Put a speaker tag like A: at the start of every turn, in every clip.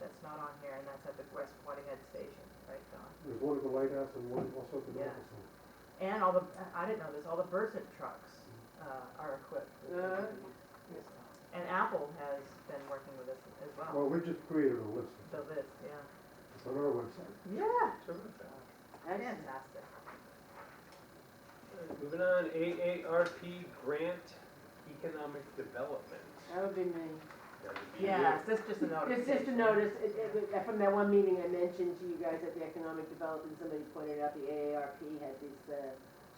A: that's not on here, and that's at the West Head Station, right, Don?
B: There's one at the White House and one also at the
A: Yeah.
B: Medical Center.
A: And all the, I didn't know this, all the Versant trucks uh, are equipped.
C: Uh,
A: with- And Apple has been working with us as well,
B: Well, we just created a list.
A: so this, yeah.
B: It's on our website.
A: Yeah,
C: Excellent.
A: fantastic.
D: Moving on, AARP grant economic development.
C: That would be me.
D: That would be
A: Yes, that's just a notice.
C: It's just a notice, it, it, was- from that one meeting I mentioned to you guys at the economic development, somebody pointed out the AARP had this, uh,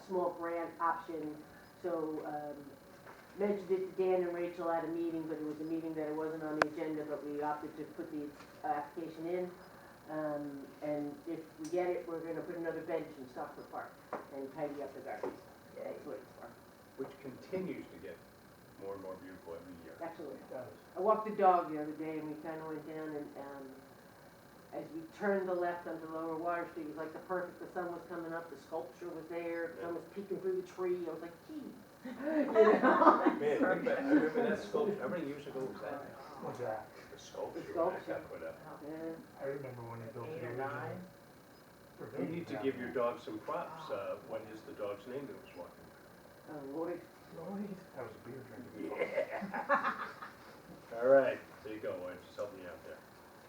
C: small grant option. So, um, mentioned it to Dan and Rachel at a meeting, but it was a meeting that it wasn't on the agenda, but we opted to put the uh, application in. Um, and if we get it, we're gonna put another bench in Stockford Park and tidy up the gardens.
A: Yay.
C: That's what it's for.
D: Which continues to get more and more beautiful every year.
C: Absolutely. I walked the dog the other day and we kind of went down and, um, as we turned the left onto Lower Water Street, it was like the perfect, the sun was coming up, the sculpture was there, the sun was peeking through the tree, I was like, geez. You know?
D: Man, think about- I remember that sculpture, how many years ago was that?
E: What's that?
D: The sculpture
C: The
D: when that
C: sculpture.
D: got put up.
C: Yeah.
E: I remember when they built
A: Eight
E: the
A: or nine?
E: original.
D: You need to give your dog some props. Uh, What is the dog's name that was walking?
C: Oh, Lord.
A: Lloyd.
E: That was a beer drinking.
D: All right, there you go, I just helped me out there.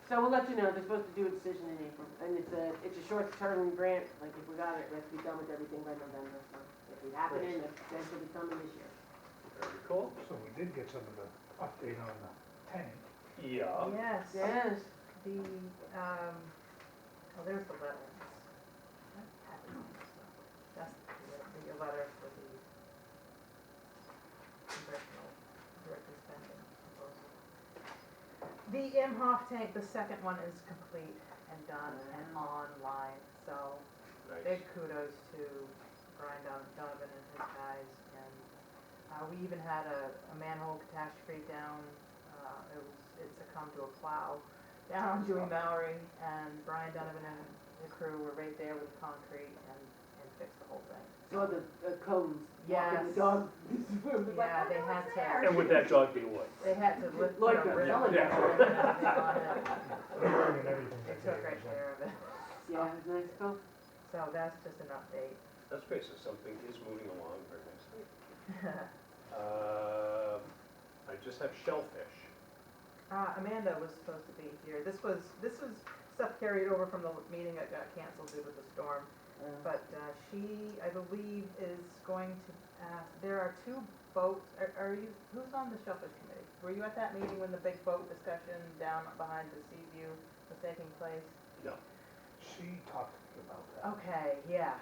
C: So we'll let you know, they're supposed to do a decision in April, and it's a, it's a short-term grant, like if we got it, let's be done with everything by November, so if it happened, then it'll be coming this year.
D: Very cool.
E: So we did get some of the update on the tank.
C: Oh.
D: Yeah.
A: Yes,
C: Yes.
A: the, um, oh, there's the letter. That's happening. That's the, the letter for the congressional directed spending proposal. The Imhoff tank, the second one is complete and done and online, so
D: Nice.
A: big kudos to Brian Don- Donovan and his guys, and, uh, we even had a, a manhole catastrophe down, uh, it was, it succumbed to a plow down on Dewey Mallory, and Brian Donovan and the crew were right there with concrete and, and fixed the whole thing.
C: Saw the uh, cones, walking the
A: Yes.
C: dog.
A: Yeah,
C: "Oh,
A: they had to-
D: And would that dog be what?
A: They had to lift. put
C: Lloyd
A: a
C: got
A: ribbon
C: yelling at
A: on it, and they got it.
E: They learned everything
A: They
E: that
A: took
E: day,
A: right
E: so-
A: care of it,
C: Yeah, it was "Oh, nice, cool.
A: so that's just an update.
D: That's great, so something is moving along very nicely. Uh, I just have shellfish.
A: Uh, Amanda was supposed to be here. This was, this was stuff carried over from the meeting that got canceled due to the storm.
C: Uh,
A: But uh, she, I believe, is going to ask, there are two boats, are, are you, who's on the shellfish committee? Were you at that meeting when the big boat discussion down behind the sea view was taking place?
E: She talked to me about that.
A: Okay, yeah.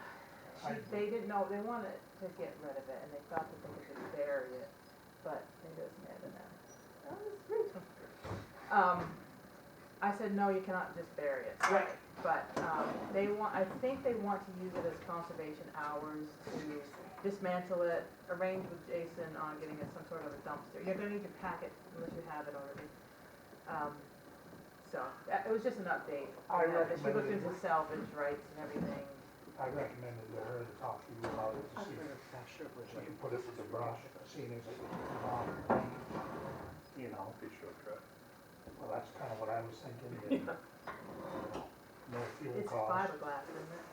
A: She,
E: I-
A: they didn't know, they wanted to get rid of it and they thought that they could just bury it, but maybe it's Amanda now. That was brutal. Um, I said, no, you cannot just bury it.
C: Right.
A: But, um, they want, I think they want to use it as conservation hours to dismantle it, arrange with Jason on getting it some sort of a dumpster. You're gonna need to pack it unless you have it already. Um, so, that, it was just an update.
E: I
A: on that, that She looked
E: recommended-
A: into salvage rights and everything.
E: I recommended to her to talk to you about it, to see if she could put it with the brush, seeing as it was a brown thing, you know,
D: Fish or truck.
E: well, that's kind of what I was thinking. and No fuel
A: It's
E: cost.
A: fiberglass, isn't it?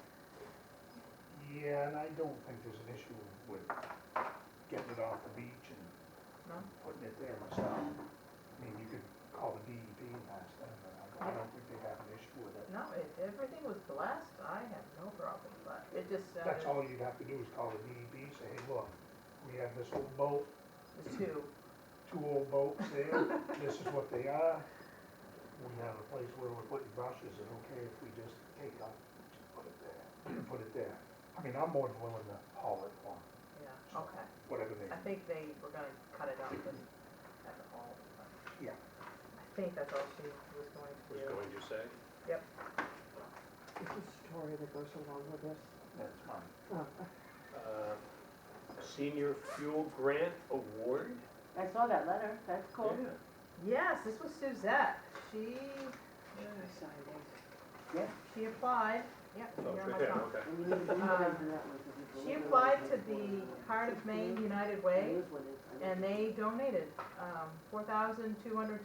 E: Yeah, and I don't think there's an issue with getting it off the beach and
A: No?
E: putting it there myself. I mean, you could call the DEP and ask them, but I don't- I don't think they have an issue with it.
A: No, if everything was blessed, I have no problem, but it just
E: That's
A: sounded,
E: all you'd have to do is call the DEP, say, hey, look, we have this old boat,
A: the two,
E: two old boats there, this is what they are. We have a place where we're putting brushes, and okay if we just take it off, just put it there, put it there. I mean, I'm more than willing to haul it on,
A: yeah, okay.
E: whatever they,
A: I think they were gonna cut it up and have it all, but
E: yeah.
A: I think that's all she was going to
D: Was
A: do.
D: going to say?
F: It's a story that goes along with this.
E: That's mine.
D: Uh, Senior Fuel Grant Award?
C: I saw that letter, that's cool.
D: Yeah.
A: Yes, this was Suzette, she,
F: I signed it.
A: she applied, yeah, she
D: Oh,
A: got
D: it's
A: my
D: right there,
A: phone.
D: okay.
C: And we need to- we need to do that one, 'cause it's a
A: She
C: little-
A: applied to the Heart of Maine United Way,
C: It is what it is. I mean-
A: and they donated, um, four thousand two hundred